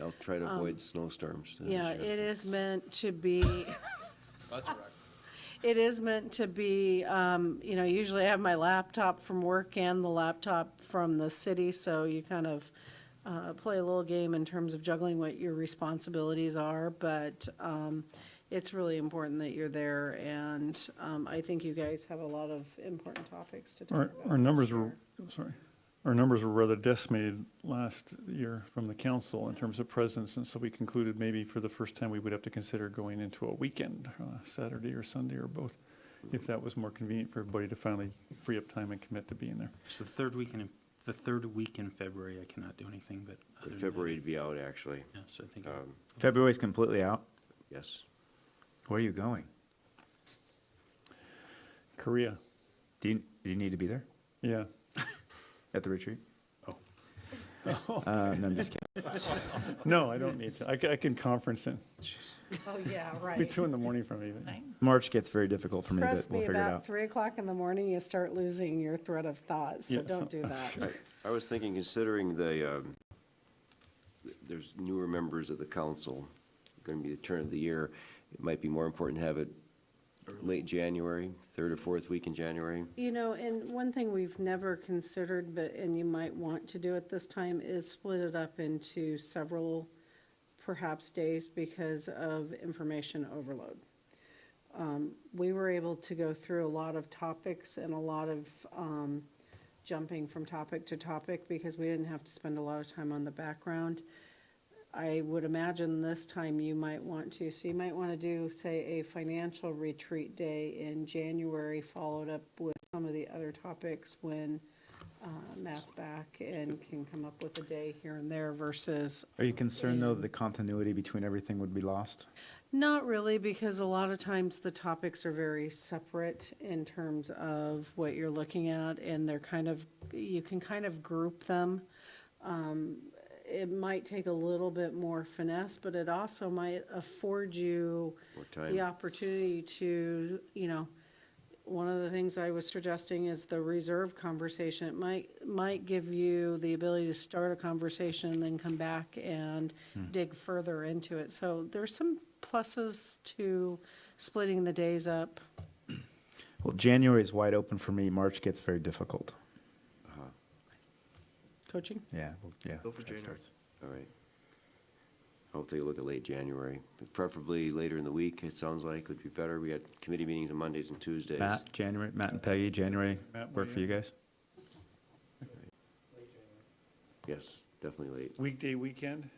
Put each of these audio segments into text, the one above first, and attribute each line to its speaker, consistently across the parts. Speaker 1: I'll try to avoid snowstorms.
Speaker 2: Um, Yeah, it is meant to be,
Speaker 3: That's correct.
Speaker 2: it is meant to be, um, you know, usually I have my laptop from work and the laptop from the city, so you kind of uh, play a little game in terms of juggling what your responsibilities are, but um, it's really important that you're there, and um, I think you guys have a lot of important topics to talk
Speaker 4: Our,
Speaker 2: about.
Speaker 4: our numbers
Speaker 2: for
Speaker 4: were,
Speaker 2: sure.
Speaker 4: sorry, our numbers were rather decimated last year from the council in terms of presence, and so we concluded maybe for the first time, we would have to consider going into a weekend, uh, Saturday or Sunday or both, if that was more convenient for everybody to finally free up time and commit to being there.
Speaker 5: So the third week in, the third week in February, I cannot do anything, but. other than that,
Speaker 1: February to be out, actually,
Speaker 5: Yeah, so I think,
Speaker 1: Um,
Speaker 6: February's completely out.
Speaker 1: yes.
Speaker 6: Where are you going?
Speaker 4: Korea,
Speaker 6: Do you, do you need to be there
Speaker 4: yeah.
Speaker 6: at the retreat?
Speaker 5: Oh.
Speaker 6: Uh, no, I'm just kidding.
Speaker 4: No, I don't need to. I ca- I can conference in.
Speaker 2: Oh, yeah,
Speaker 4: It'll Be
Speaker 2: right.
Speaker 4: two in the morning from me. but-
Speaker 6: March gets very difficult for me, but
Speaker 2: Trust
Speaker 6: we'll
Speaker 2: me,
Speaker 6: figure it
Speaker 2: about
Speaker 6: out.
Speaker 2: three o'clock in the morning, you start losing your thread of thought, so
Speaker 4: Yeah,
Speaker 2: don't
Speaker 4: so-
Speaker 2: do
Speaker 6: oh,
Speaker 2: that.
Speaker 1: I- I was thinking, considering the, um, th- there's newer members of the council, going to be the turn of the year, it might be more important to have it late January, third or fourth week in January.
Speaker 2: You know, and one thing we've never considered, but, and you might want to do at this time, is split it up into several perhaps days because of information overload. Um, We were able to go through a lot of topics and a lot of um, jumping from topic to topic because we didn't have to spend a lot of time on the background. I would imagine this time you might want to, so you might want to do, say, a financial retreat day in January, followed up with some of the other topics when uh, Matt's back and can come up with a day here and there versus
Speaker 6: Are you concerned, though, that the continuity between everything would be lost?
Speaker 2: Not really, because a lot of times the topics are very separate in terms of what you're looking at, and they're kind of, you can kind of group them. Um, It might take a little bit more finesse, but it also might afford you
Speaker 1: More
Speaker 2: the
Speaker 1: time.
Speaker 2: opportunity to, you know, one of the things I was suggesting is the reserve conversation. It might, might give you the ability to start a conversation and then come back and dig further into it. So there's some pluses to splitting the days up.
Speaker 6: Well, January is wide open for me. March gets very difficult.
Speaker 2: Coaching?
Speaker 6: Yeah, well, yeah. Go for January.
Speaker 1: All right. I'll take a look at late January, but preferably later in the week, it sounds like would be better. We got committee meetings on Mondays and Tuesdays.
Speaker 6: Matt, January, Matt and Peggy, January
Speaker 4: Matt, what
Speaker 6: work
Speaker 4: do
Speaker 6: for
Speaker 4: you-
Speaker 6: you guys?
Speaker 1: Yes, definitely late.
Speaker 4: Weekday, weekend?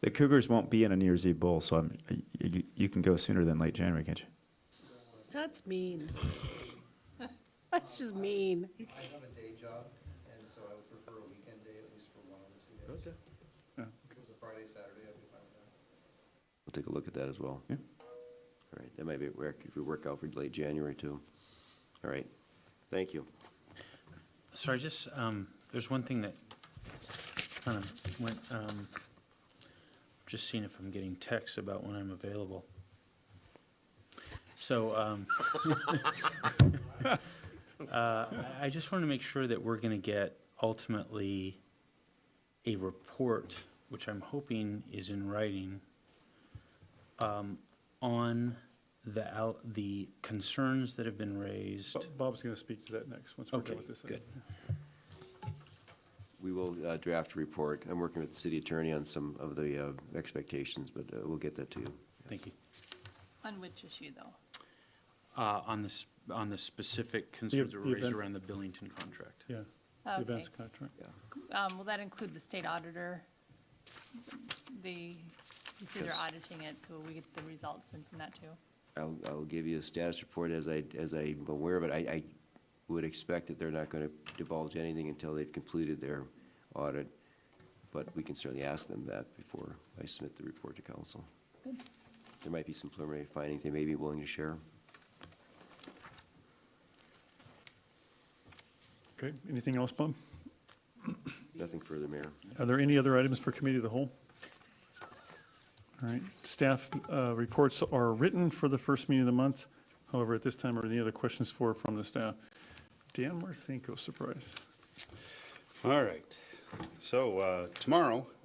Speaker 6: The Cougars won't be in a New Year's Eve bowl, so I'm, you, you can go sooner than late January, can't you?
Speaker 2: That's mean. That's just mean.
Speaker 7: I have a day job, and so I would prefer a weekend day at least for one of the two days.
Speaker 1: Okay.
Speaker 4: Yeah.
Speaker 7: If it was a Friday, Saturday, I'd be fine with that.
Speaker 1: We'll take a look at that as well.
Speaker 6: Yeah.
Speaker 1: All right, that might be, work if we work out for late January too. All right, thank you.
Speaker 5: so I just, um, there's one thing that kind of went, um, just seeing if I'm getting texts about when I'm available. So, um, uh, I- I just want to make sure that we're going to get ultimately a report, which I'm hoping is in writing, um, on the, al- the concerns that have been raised.
Speaker 4: Bo- Bob's going to speak to that next, once we're
Speaker 5: Okay,
Speaker 4: done with this.
Speaker 5: good.
Speaker 1: We will uh, draft a report. I'm working with the city attorney on some of the uh, expectations, but uh, we'll get that to you.
Speaker 5: Thank you.
Speaker 8: On which issue, though?
Speaker 5: Uh, on this, on the specific concerns that
Speaker 4: the
Speaker 5: were raised
Speaker 4: events-
Speaker 5: around the Billington contract.
Speaker 4: Yeah, the
Speaker 8: Okay.
Speaker 4: events contract.
Speaker 8: Um, Will that include the state auditor? The, you said they're
Speaker 1: Yes.
Speaker 8: auditing it, so will we get the results then from that, too?
Speaker 1: I'll, I'll give you a status report as I, as I'm aware of it. I, I would expect that they're not going to divulge anything until they've completed their audit, but we can certainly ask them that before I submit the report to council. There might be some preliminary findings they may be willing to share.
Speaker 4: Okay, anything else, Bob?
Speaker 1: Nothing further, Mayor.
Speaker 4: Are there any other items for committee of the whole? All right, staff uh, reports are written for the first meeting of the month. However, at this time, are there any other questions for, from the staff? Dan Marcinko, surprise.
Speaker 3: All right. So uh, tomorrow,